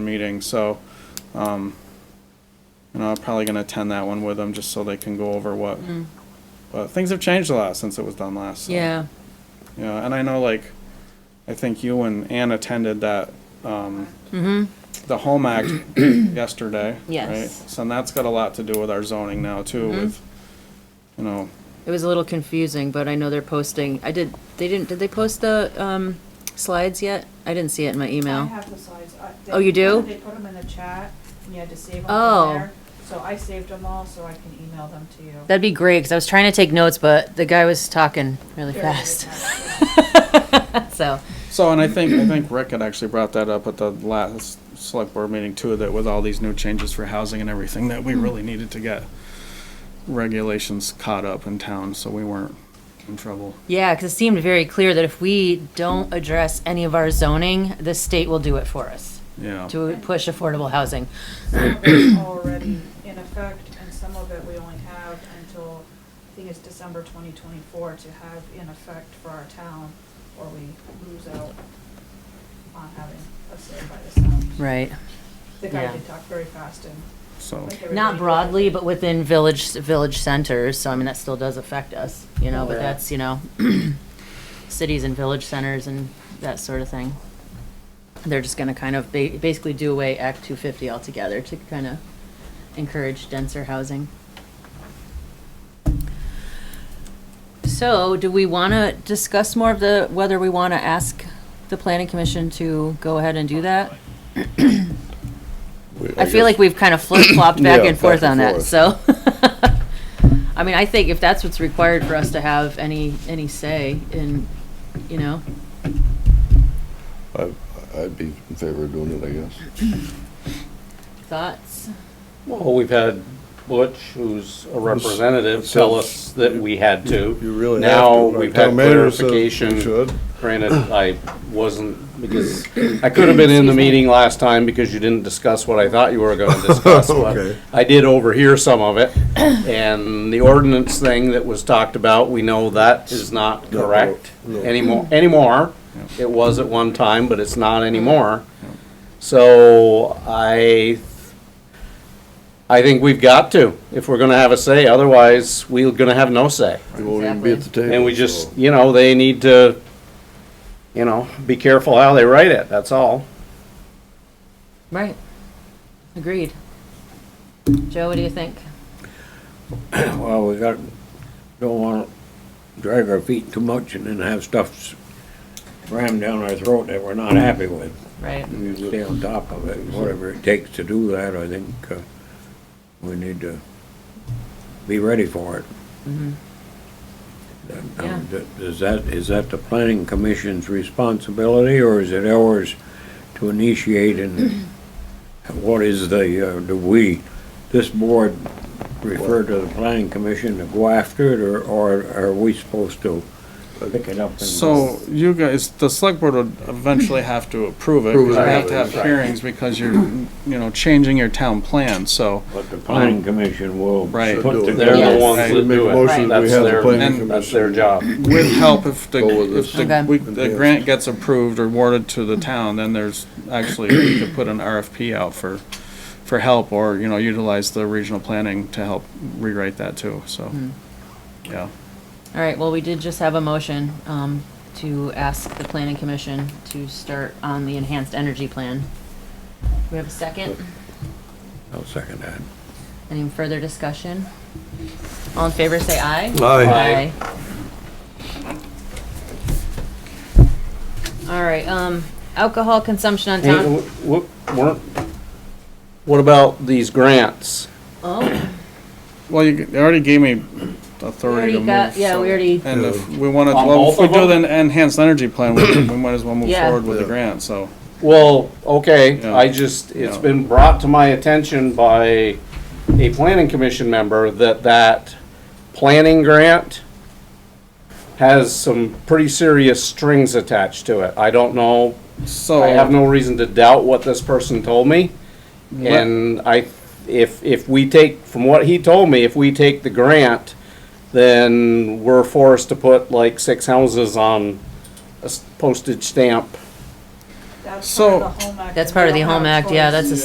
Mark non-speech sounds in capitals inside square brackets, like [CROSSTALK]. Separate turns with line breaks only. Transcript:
meeting, so, um, you know, I'm probably gonna attend that one with them, just so they can go over what, but things have changed a lot since it was done last. so,
Mm. Yeah,
Yeah, and I know, like, I think you and Ann attended that, um,
Mm-hmm.
the Home Act
[COUGHS]
yesterday.
Yes. Mm-hmm.
right? So, and that's got a lot to do with our zoning now, too, with, you know,
it was a little confusing, but I know they're posting, I did, they didn't, did they post the, um, slides yet? I didn't see it in my
I
email.
have the slides. I- they-
Oh, you do?
They put them in the chat, and you had to save them
Oh.
from there. So I saved them all, so I can email them to you.
That'd be great, cause I was trying to take notes, but the guy was talking really
Very, very
fast, [LAUGHS]
fast.
so.
So, and I think, I think Rick had actually brought that up at the last select board meeting too, that with all these new changes for housing and everything, that we really needed to get regulations caught up in town, so we weren't in trouble.
Yeah, cause it seemed very clear that if we don't address any of our zoning, the state will do it for us
Yeah,
to push affordable housing.
Some of it's Already in effect, and some of it we only have until, I think it's December twenty twenty-four to have in effect for our town, or we lose out on having a say by the sound.
Right,
The guy
yeah.
did talk very fast and.
so,
like everybody
not
did.
broadly, but within village, village centers, so I mean, that still does affect us, you know, but
Yeah.
that's, you know, [CLEARS THROAT] cities and village centers and that sort of thing. They're just gonna kind of ba- basically do away Act two fifty altogether to kind of encourage denser housing. So, do we wanna discuss more of the, whether we wanna ask the planning commission to go ahead and do that? I feel like we've kind of [COUGHS] flip-flopped back
Yeah,
and forth
back
on
and
that,
forth.
so. [LAUGHS] I mean, I think if that's what's required for us to have any, any say in, you know,
I- I'd be in favor of doing it, I guess.
thoughts?
Well, we've had Butch, who's a representative, tell us that we had to.
You really have to.
Now,
Like
we've
town
had
manager said we
clarification.
should.
Granted, I wasn't, because I could have been in the
Excuse me.
meeting last time because you didn't discuss what I thought you were gonna
[LAUGHS]
discuss. but
Okay.
I did overhear some of it, and the ordinance thing that was talked about, we know that is not
No, no,
correct
no.
anymore, anymore. It was at one time, but it's not anymore. So I, I think we've got to, if we're gonna have a say, otherwise we're gonna have no say.
You won't even be at the table.
And we just,
so-
you know, they need to, you know, be careful how they write it, that's all.
Right. Agreed. Joe, what do you think?
Well, we got, don't want to drag our feet too much and then have stuff rammed down our throat that we're not happy with.
Right.
We Stay on top of it, whatever it takes to do that, I think uh, we need to be ready for it. That- now,
Mm-hmm. Yeah.
that- Is that, is that the planning commission's responsibility, or is it ours to initiate and [CLEARS THROAT] what is the, uh, do we, this board refer to the planning commission to go after it, or, or are we supposed to pick it up and?
so you guys, the select board would eventually have to approve it,
Approve it.
because you have to have
Right.
hearings, because you're, you know, changing your town plan, so.
But the planning commission will
Right.
put
Do it.
together.
They're
Yes.
the ones
Right.
that
Make a
do it.
motion,
Right.
we
That's
have the
their-
planning
That's their
commission.
job.
With help, if the,
Go with
if
this.
the,
Okay.
if the grant gets approved or awarded to the town, then there's actually, we could put an RFP out for, for help, or, you know, utilize the regional planning to help rewrite that too, so,
Hmm.
yeah.
All right, well, we did just have a motion, um, to ask the planning commission to start on the enhanced energy plan. Do we have a second?
I'll second that.
Any further discussion? All in favor, say aye.
Aye.
Aye. All right, um, alcohol consumption on
Hey,
town,
wh- wh- weren't- What about these grants?
oh,
Well, you, they already gave me authority
already
to move.
got- yeah, we
so-
already-
And if we wanted,
On
well, if we
both of
do the
them?
enhanced energy plan, we we might as well move
Yeah.
forward with the
Yeah.
grant, so.
Well, okay,
Yeah.
I just, it's
Yeah.
been brought to my attention by a planning commission member that that planning grant has some pretty serious strings attached to it. I don't know,
So.
I have no reason to doubt what this person told me.
Let-
And I, if, if we take, from what he told me, if we take the grant, then we're forced to put like six houses on a s- postage stamp
That's part
So-
of the Home Act.
That's
and
part of
we
the
don't
Home
have
Act, yeah,
choice.
that's a